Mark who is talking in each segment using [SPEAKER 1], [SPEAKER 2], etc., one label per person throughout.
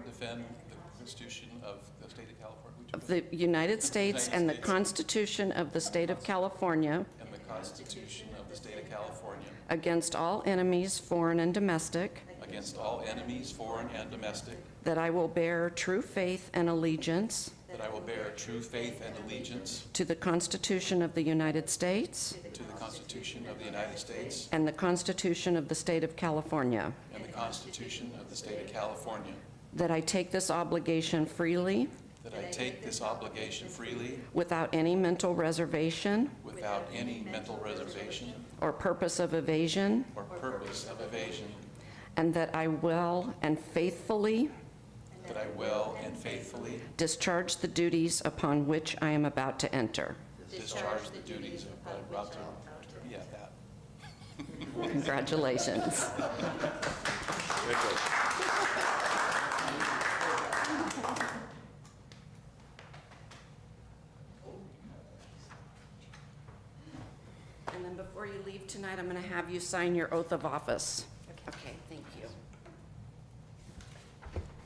[SPEAKER 1] defend the Constitution of the State of California, which
[SPEAKER 2] of the United States and the
[SPEAKER 1] States.
[SPEAKER 2] Constitution of the State of California
[SPEAKER 1] and the Constitution of the State of California
[SPEAKER 2] against all enemies, foreign and domestic,
[SPEAKER 1] against all enemies, foreign and domestic,
[SPEAKER 2] that I will bear true faith and allegiance
[SPEAKER 1] that I will bear true faith and allegiance
[SPEAKER 2] to the Constitution of the United States
[SPEAKER 1] to the Constitution of the United States
[SPEAKER 2] and the Constitution of the State of California,
[SPEAKER 1] and the Constitution of the State of California,
[SPEAKER 2] that I take this obligation freely
[SPEAKER 1] that I take this obligation freely
[SPEAKER 2] without any mental reservation
[SPEAKER 1] without any mental reservation
[SPEAKER 2] or purpose of evasion,
[SPEAKER 1] or purpose of evasion,
[SPEAKER 2] and that I will and faithfully
[SPEAKER 1] that I will and faithfully
[SPEAKER 2] discharge the duties upon which I am about to enter.
[SPEAKER 1] discharge the duties of public prosecutor. Yeah, that.
[SPEAKER 2] Congratulations. And then before you leave tonight, I'm going to have you sign your oath of office. Okay, thank you.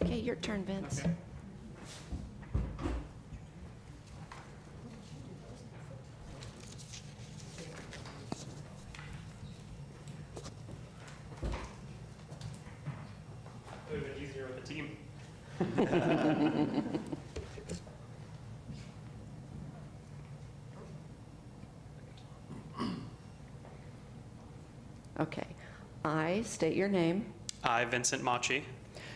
[SPEAKER 2] Okay, your turn, Vince.
[SPEAKER 3] It would have been easier with a team.
[SPEAKER 2] Okay. I state your name,
[SPEAKER 3] I, Vincent Machi,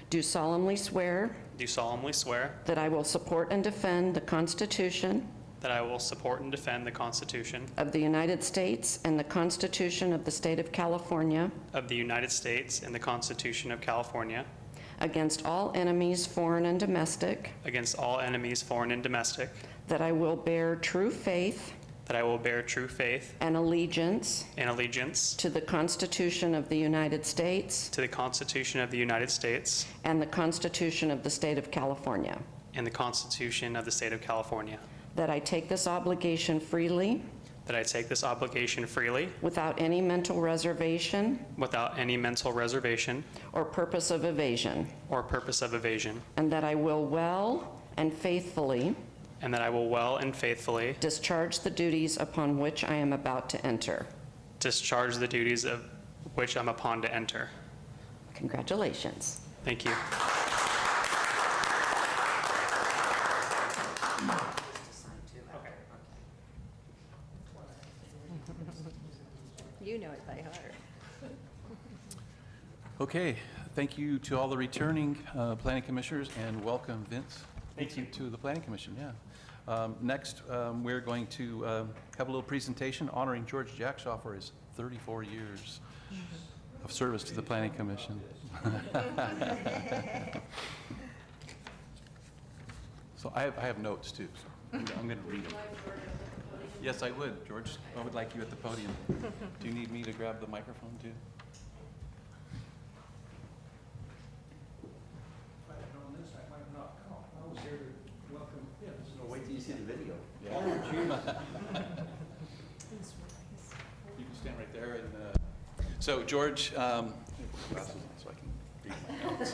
[SPEAKER 2] do solemnly swear
[SPEAKER 3] do solemnly swear
[SPEAKER 2] that I will support and defend the Constitution
[SPEAKER 3] that I will support and defend the Constitution
[SPEAKER 2] of the United States and the Constitution of the State of California
[SPEAKER 3] of the United States and the Constitution of California
[SPEAKER 2] against all enemies, foreign and domestic,
[SPEAKER 3] against all enemies, foreign and domestic,
[SPEAKER 2] that I will bear true faith
[SPEAKER 3] that I will bear true faith
[SPEAKER 2] and allegiance
[SPEAKER 3] and allegiance
[SPEAKER 2] to the Constitution of the United States
[SPEAKER 3] to the Constitution of the United States
[SPEAKER 2] and the Constitution of the State of California,
[SPEAKER 3] and the Constitution of the State of California,
[SPEAKER 2] that I take this obligation freely
[SPEAKER 3] that I take this obligation freely
[SPEAKER 2] without any mental reservation
[SPEAKER 3] without any mental reservation
[SPEAKER 2] or purpose of evasion,
[SPEAKER 3] or purpose of evasion,
[SPEAKER 2] and that I will well and faithfully
[SPEAKER 3] and that I will well and faithfully
[SPEAKER 2] discharge the duties upon which I am about to enter.
[SPEAKER 3] discharge the duties of which I'm upon to enter.
[SPEAKER 2] Congratulations.
[SPEAKER 3] Thank you.
[SPEAKER 4] You know it by heart.
[SPEAKER 1] Okay, thank you to all the returning uh, planning commissioners, and welcome Vince. Thank you. To the planning commission, yeah. Um, Next, um, we're going to um, have a little presentation honoring George Jackshaw for his 34 years of service to the planning commission. So I have, I have notes too, so I'm going to read them. Yes, I would, George. I would like you at the podium. Do you need me to grab the microphone too?
[SPEAKER 5] If I'd known this, I might not come. I was here to welcome him.
[SPEAKER 6] No, wait till you see the video.
[SPEAKER 1] You can stand right there and, uh, so George, um, glasses on so I can read my notes.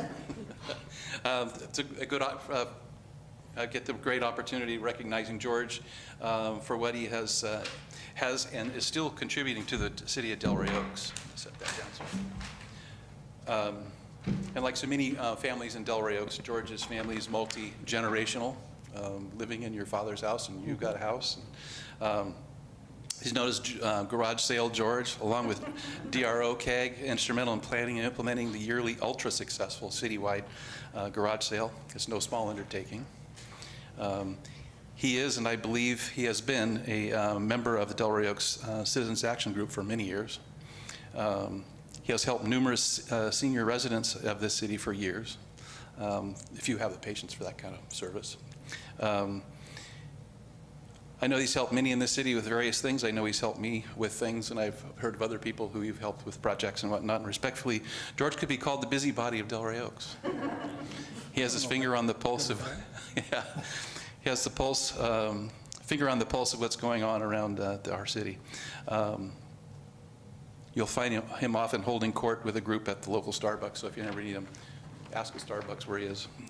[SPEAKER 1] Um, It's a- a good, op- uh, I get the great opportunity recognizing George um, for what he has, uh, has and is still contributing to the t- city of Delray Oaks. Set that down, sorry. Um, And like so many uh, families in Delray Oaks, George's family is multi-generational, um, living in your father's house, and you've got a house. Um, He's known as uh, Garage Sale George, along with DRO CAG, instrumental in planning and implementing the yearly ultra-successful citywide uh, garage sale. It's no small undertaking. Um, He is, and I believe he has been, a uh, member of the Delray Oaks uh, Citizens Action Group for many years. Um, He has helped numerous uh, senior residents of this city for years, um, if you have the patience for that kind of service. Um, I know he's helped many in this city with various things. I know he's helped me with things, and I've heard of other people who you've helped with projects and whatnot. And respectfully, George could be called the busybody of Delray Oaks. He has his finger on the pulse of, yeah, he has the pulse, um, finger on the pulse of what's going on around uh, our city. Um, You'll find him- him often holding court with a group at the local Starbucks, so if you ever need him, ask at Starbucks where he is.